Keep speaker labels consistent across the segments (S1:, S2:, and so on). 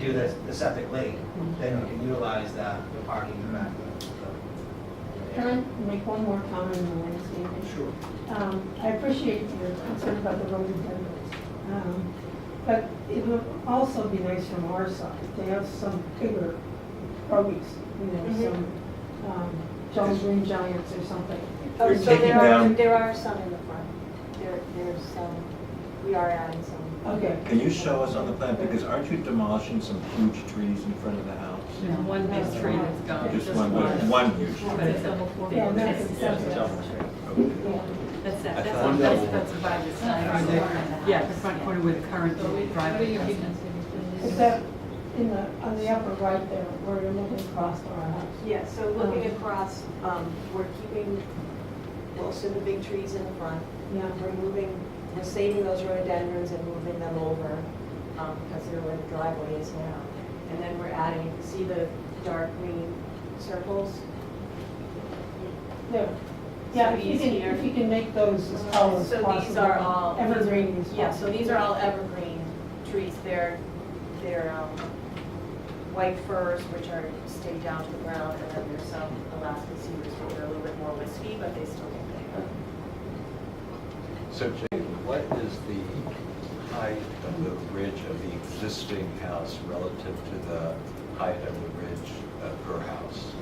S1: do the, the septic lake,
S2: Mm-hmm.
S1: then you can utilize that, the parking in the back.
S3: Can I make one more comment on the landscaping?
S1: Sure.
S3: Um, I appreciate your concern about the rhododendrons. Um, But it would also be nice from our side, to have some bigger growings, you know,
S4: Mm-hmm.
S3: some, um, John's Green Giants or something.
S4: Oh,
S5: You're
S4: so
S5: taking
S4: there are,
S5: down-
S4: there are some in the front. There, there's some, we are adding some.
S3: Okay.
S5: Can you show us on the plan, because aren't you demolishing some huge trees in front of the house?
S6: No, one big tree that's gone.
S5: Just one, one huge
S6: But
S5: tree?
S6: it's a whole thing.
S3: Yeah, that's
S6: That's, that's,
S3: acceptable.
S5: Okay.
S3: Yeah.
S6: that's,
S5: I
S6: that's
S5: thought-
S6: by the side. Yeah, the front corner where the current driveway is.
S3: Is that in the, on the upper right there, where you're looking across our house?
S4: Yeah, so looking across, um, we're keeping most of the big trees in the front.
S3: Yeah.
S4: We're moving, we're saving those rhododendrons and moving them over, um, because they're where the driveway is now. And then we're adding, you can see the dark green circles?
S3: There. Yeah, if you can,
S4: Easier.
S3: if you can make those as tall as possible.
S4: Oh, So these are all.
S3: Evergreen as
S4: Yeah, so
S3: possible.
S4: these are all evergreen trees. They're, they're um, white firs, which are, stay down to the ground, and then there's some Alaskan cedars, which are a little bit more wispy, but they still get big.
S7: So Jay, what is the height of the ridge of the existing house relative to the height of the ridge of her house?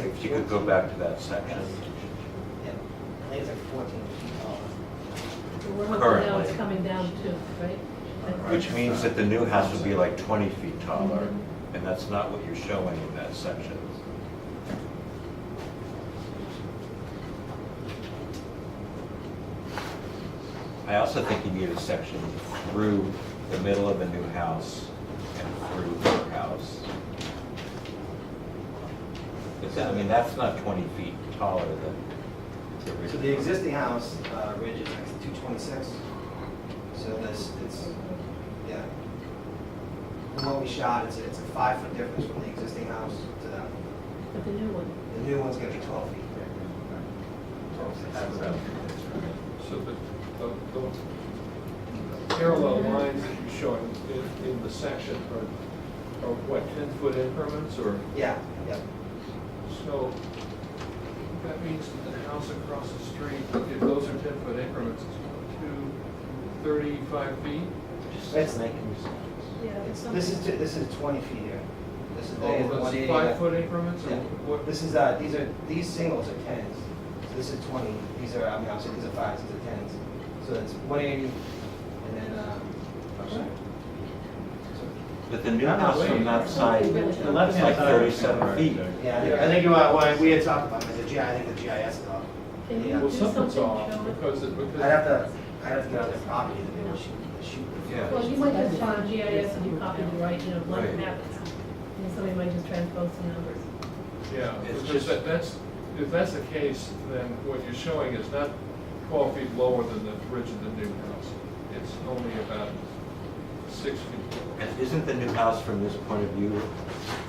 S7: If you could go back to that section.
S1: Yeah, I think it's like fourteen feet tall.
S2: We're hoping now it's coming down too, right?
S7: Which means that the new house would be like 20 feet taller, and that's not what you're showing in that section. I also think you need a section through the middle of the new house and through her house. It's- I mean, that's not 20 feet taller than the original.
S1: So the existing house, uh, ridge is like two twenty-six, so this, it's, yeah. From what we shot, it's, it's a five-foot difference from the existing house to that. one.
S2: But the new one,
S1: The new one's gonna be twelve feet. Twelve, six.
S7: That's what I'm-
S8: So the, the- the parallel lines that you're showing in, in the section are, are what, ten-foot increments or?
S1: Yeah, yeah.
S8: So that means that the house across the street, if those are ten-foot increments, it's one, two, thirty-five feet?
S1: It's, it's- this is, ju- this is twenty feet here. This is, they
S8: Oh,
S1: have
S8: that's
S1: one eighty.
S8: Five-foot increments or
S1: Yeah,
S8: what?
S1: This is, uh, these are, these singles are tens, so this is twenty, these are, I mean, obviously, these are fives, these are tens, so it's one eighty, and then, uh, I'm sorry. So-
S7: But the new house from that side is like 37 feet.
S1: Yeah, I think, I think about why, we had talked about, it, I said, yeah, I think the GIS is off.
S2: can you
S1: Yeah.
S2: do
S8: Well, something's
S2: something?
S8: off
S2: Joe?
S8: because it, because.
S1: I'd have to, I'd have to get on their property, and they would shoot, they shoot.
S7: Yeah.
S2: Well, you might just find GIS and you copy the right, you know, blank
S7: Right.
S2: map, and somebody might just transpose the numbers.
S8: Yeah,
S7: It's
S8: because
S7: just-
S8: that- that's, if that's the case, then what you're showing is not twelve feet lower than the ridge of the new house. It's only about six feet. lower.
S7: And isn't the new house from this point of view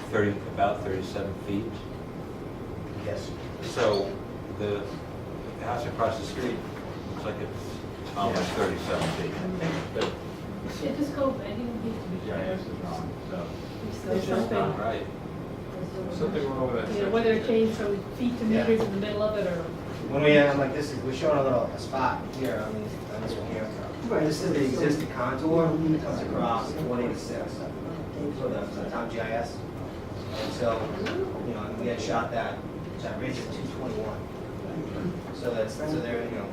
S7: 30, about 37 feet?
S1: Yes.
S7: So the the house across the street looks like it's almost 37 feet. I think that
S2: Yeah, just go, I didn't need to be.
S7: GIS is wrong, so it's
S2: There's
S7: just not
S2: something,
S7: right.
S8: Something wrong with that
S2: you know,
S8: section.
S2: whether it changed from feet to
S1: Yeah.
S2: meters in the middle of it or.
S1: When we, uh, I'm like, this is, we're showing a little, a spot here, on these, on this one here. This is the existing contour, it comes across one eighty-six, so that's the town GIS. And so, you know, and we had shot that, that ridge at two twenty-one. So that's, so there, you know,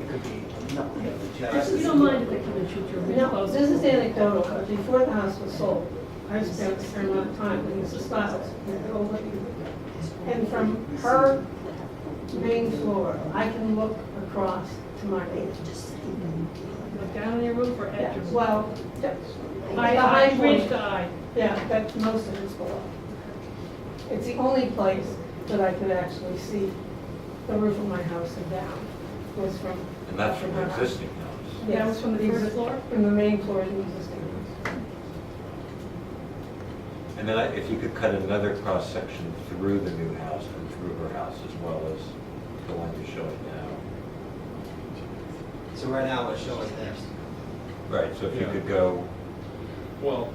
S1: it could be, you know, the GIS
S2: You
S1: is-
S2: don't mind if they come and shoot your ridge
S3: No,
S2: post?
S3: this is anecdotal, but before the house was sold, I spent a fair amount of time with Mrs. Stiles, the old lady. And from her main floor, I can look across to my neighbor.
S2: Look down in your roof or at your. roof?
S3: Well, yeah,
S2: By the
S3: high
S2: high ridge to eye.
S3: yeah, that's most of it's below. It's the only place that I could actually see the roof of my house and down was from.
S7: And that's from the
S3: her house.
S7: existing house.
S2: That was from the first floor?
S3: From the main floor to the existing house.
S7: And then I- if you could cut another cross-section through the new house and through her house as well as the one you're showing now.
S1: So right now, we're showing this.
S7: Right, so if you
S8: Yeah.
S7: could go
S8: Well,